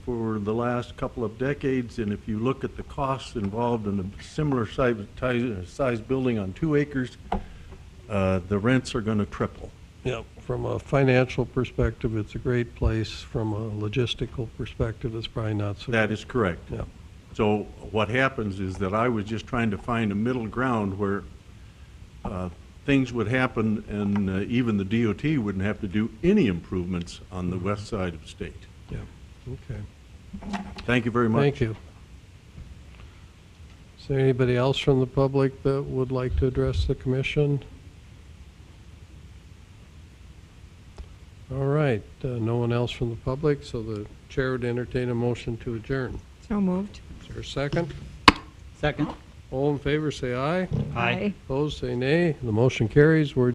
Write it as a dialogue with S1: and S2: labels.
S1: for the last couple of decades, and if you look at the costs involved in a similar size, size building on two acres, uh, the rents are going to triple.
S2: Yeah, from a financial perspective, it's a great place. From a logistical perspective, it's probably not so.
S1: That is correct.
S2: Yeah.
S1: So what happens is that I was just trying to find a middle ground where uh, things would happen and uh, even the DOT wouldn't have to do any improvements on the west side of state.
S2: Yeah, okay.
S1: Thank you very much.
S2: Thank you. Is there anybody else from the public that would like to address the commission? All right, uh, no one else from the public, so the chair would entertain a motion to adjourn.
S3: So moved.
S2: Is there a second?
S4: Second.
S2: All in favor, say aye.
S3: Aye.
S2: Opposed, say nay. The motion carries. We're